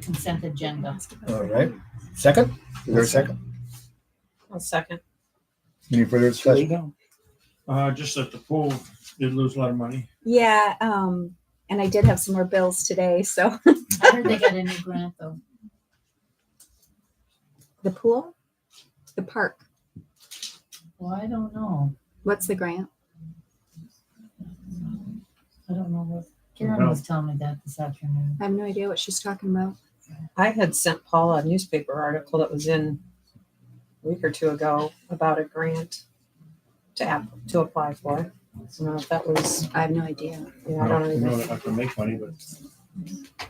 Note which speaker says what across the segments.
Speaker 1: consent agenda.
Speaker 2: All right. Second? Is there a second?
Speaker 3: I'll second.
Speaker 2: Any further discussion?
Speaker 4: Uh, just that the pool did lose a lot of money.
Speaker 5: Yeah, um, and I did have some more bills today, so
Speaker 1: I heard they got a new grant though.
Speaker 5: the pool, the park,
Speaker 1: Well, I don't know.
Speaker 5: what's the grant?
Speaker 1: I don't know what, Karen was telling me that this afternoon.
Speaker 5: I have no idea what she's talking about.
Speaker 3: I had sent Paula a newspaper article that was in a week or two ago about a grant to app, to apply for. So I don't know if that was,
Speaker 5: I have no idea.
Speaker 3: yeah,
Speaker 4: I
Speaker 3: I don't
Speaker 4: don't know
Speaker 3: even.
Speaker 4: that I can make money, but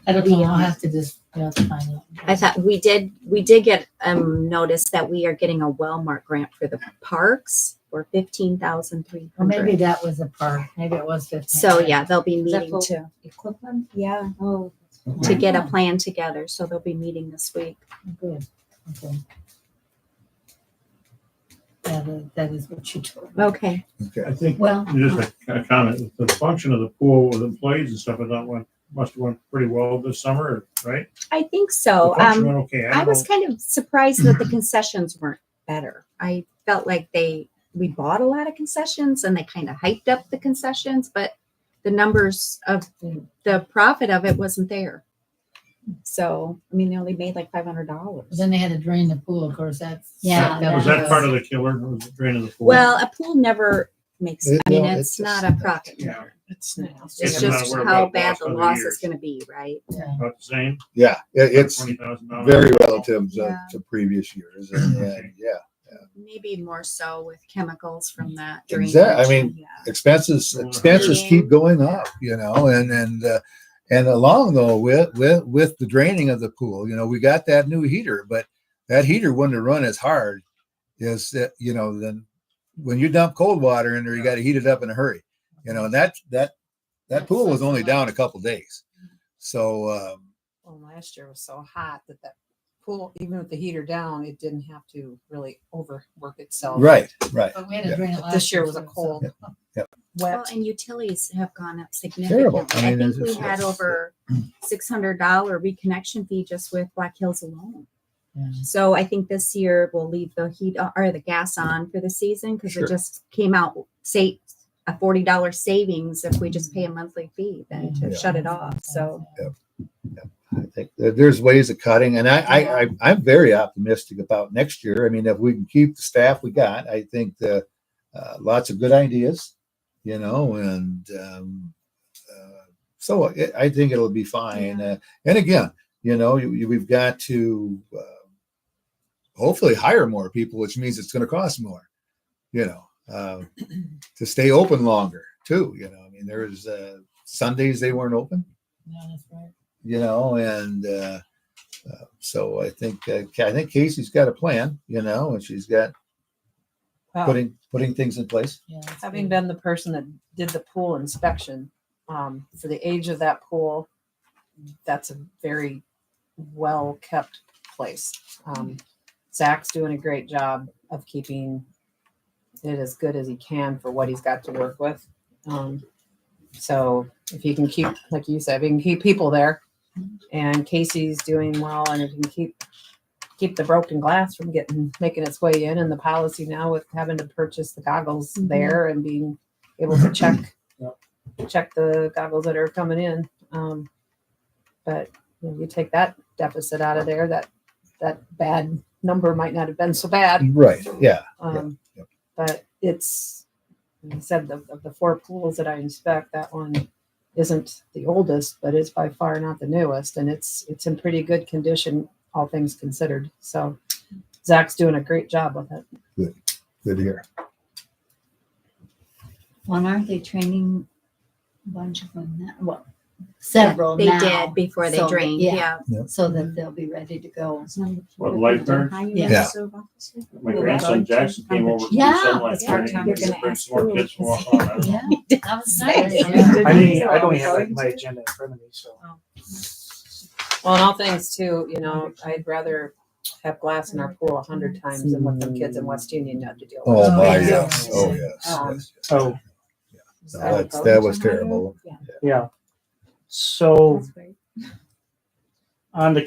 Speaker 1: I don't know, I'll have to just, you know, find out.
Speaker 5: I thought we did, we did get, um, notice that we are getting a Wellmark grant for the parks for fifteen thousand three
Speaker 1: Or maybe
Speaker 5: hundred.
Speaker 1: that was a part, maybe it was fifteen.
Speaker 5: So yeah, they'll be
Speaker 1: Is that
Speaker 5: meeting
Speaker 1: full?
Speaker 5: to,
Speaker 1: Equipment?
Speaker 5: yeah,
Speaker 1: Oh.
Speaker 5: to get a plan together. So they'll be meeting this week.
Speaker 1: Oh, Good, okay. That is, that is what you told me.
Speaker 5: Okay.
Speaker 2: Okay.
Speaker 4: I think
Speaker 1: Well,
Speaker 4: just a a comment, the function of the pool with employees and stuff, I thought went, must have went pretty well this summer, right?
Speaker 5: I think
Speaker 4: The
Speaker 5: so.
Speaker 4: function
Speaker 5: Um,
Speaker 4: went Okay,
Speaker 5: I
Speaker 4: I
Speaker 5: was
Speaker 4: don't
Speaker 5: kind of surprised that the concessions weren't better. I felt like they, we bought a lot of concessions and they kind of hyped up the concessions, but the numbers of the profit of it wasn't there. So, I mean, they only made like five hundred dollars.
Speaker 1: then they had to drain the pool, of course, that's.
Speaker 6: Yeah,
Speaker 4: know. Was that part of the killer, was the drain of the pool?
Speaker 5: Well, a pool never makes,
Speaker 2: It-
Speaker 5: I mean,
Speaker 2: no,
Speaker 5: it's
Speaker 2: it's
Speaker 5: not a
Speaker 2: just-
Speaker 5: profit.
Speaker 4: Yeah.
Speaker 3: It's now.
Speaker 5: It's
Speaker 4: It's not
Speaker 5: just
Speaker 4: where
Speaker 5: how
Speaker 4: about
Speaker 5: bad
Speaker 4: loss
Speaker 5: the
Speaker 4: over the
Speaker 5: loss is
Speaker 4: years.
Speaker 5: gonna be, right?
Speaker 1: Yeah.
Speaker 4: About the same?
Speaker 2: Yeah, it- it's
Speaker 4: Twenty thousand dollars?
Speaker 2: very relative to,
Speaker 5: Yeah.
Speaker 2: to previous years. And, and, yeah,
Speaker 5: Maybe more so with chemicals from that drainage.
Speaker 2: Exact- I mean,
Speaker 5: Yeah.
Speaker 2: expenses
Speaker 4: Well,
Speaker 2: expenses
Speaker 5: yeah.
Speaker 2: keep going up, you know, and and uh, and along though with with with the draining of the pool, you know, we got that new heater, but that heater wouldn't have run as hard as that, you know, then when you dump cold water in there, you got to heat it up in a hurry, you know, and that that that
Speaker 1: That
Speaker 2: pool was
Speaker 1: sucks
Speaker 2: only
Speaker 1: a lot.
Speaker 2: down a couple days, so. um
Speaker 3: Well, last year was so hot that that pool, even with the heater down, it didn't have to really overwork itself.
Speaker 2: Right, right.
Speaker 1: But we had to
Speaker 2: Yeah.
Speaker 1: drain it
Speaker 3: But
Speaker 1: last.
Speaker 3: This year was a
Speaker 1: so-
Speaker 3: cold,
Speaker 5: Well,
Speaker 3: wet.
Speaker 5: and utilities have gone up
Speaker 2: Terrible.
Speaker 5: significantly.
Speaker 2: I
Speaker 5: I
Speaker 2: mean,
Speaker 5: think
Speaker 2: it's-
Speaker 5: we had
Speaker 2: it's-
Speaker 5: over six hundred dollar reconnection fee just with Black Hills alone.
Speaker 1: Yeah.
Speaker 5: So I think this year we'll leave the heat o- or the gas on for the season because
Speaker 2: Sure.
Speaker 5: it just came out, say, a forty dollar savings if we just pay a monthly fee then to
Speaker 2: Yeah.
Speaker 5: shut it off. So
Speaker 2: I think that there's ways of cutting, and I, I, I, I'm very optimistic about next year. I mean, if we can keep the staff we got, I think the, uh, lots of good ideas, you know, and, um, uh, so it, I think it'll be fine. Uh, and again, you know, you, you, we've got to, uh, hopefully hire more people, which means it's going to cost more, you know, uh, to stay open longer too. You know, I mean, there was, uh, Sundays they weren't open
Speaker 1: Yeah, that's right.
Speaker 2: you know, and uh, uh, so I think uh, Ca- I think Casey's got a plan, you know, and she's got
Speaker 3: Wow.
Speaker 2: putting putting things in place.
Speaker 1: Yeah, that's
Speaker 3: Having
Speaker 1: good.
Speaker 3: been the person that did the pool inspection, um, for the age of that pool, that's a very well kept place. Um, Zach's doing a great job of keeping it as good as he can for what he's got to work with. Um, so if you can keep, like you said, if you can keep people there and Casey's doing well and if you can keep keep the broken glass from getting making its way in and the policy now with having to purchase the goggles
Speaker 5: Mhm.
Speaker 3: there and being able to check
Speaker 4: Yep.
Speaker 3: check the goggles that are coming in um, but you, know, you take that deficit out of there that that bad number might not have been so bad
Speaker 2: Right. Yeah.
Speaker 3: um,
Speaker 2: Yep.
Speaker 3: but it's like i said the, of the four pools that i inspect that one isn't the oldest but it's by far not the newest and it's it's in pretty good condition all things considered so zach's doing a great job with it
Speaker 2: Good here.
Speaker 6: Well, and aren't they training a bunch of them now? Well,
Speaker 5: yeah,
Speaker 6: several
Speaker 5: they
Speaker 6: now.
Speaker 5: did before they
Speaker 6: So,
Speaker 5: drained.
Speaker 6: yeah.
Speaker 5: Yeah.
Speaker 6: So that they'll be ready to go.
Speaker 4: What, lifeguard?
Speaker 2: Yeah.
Speaker 4: My
Speaker 6: Well,
Speaker 4: grandson Jackson came over.
Speaker 6: Yeah,
Speaker 5: that's
Speaker 4: Yeah.
Speaker 5: part-time. You're gonna ask
Speaker 4: More
Speaker 5: who,
Speaker 4: kids
Speaker 5: because-
Speaker 4: walk on. I don't know.
Speaker 1: Yeah, that was nice.
Speaker 5: Say.
Speaker 1: Yeah.
Speaker 7: I didn't, I don't have like, my agenda in front of me, so.
Speaker 3: Well, and all things too, you know, I'd rather have glass in our pool a hundred times than what the kids in West Union had to deal with.
Speaker 2: Oh my.
Speaker 1: Oh, yeah.
Speaker 2: Yeah. Oh yes.
Speaker 3: Um,
Speaker 2: yes, yes.
Speaker 7: So,
Speaker 2: No, that's, that was terrible.
Speaker 7: yeah. So
Speaker 5: That's right.
Speaker 7: on the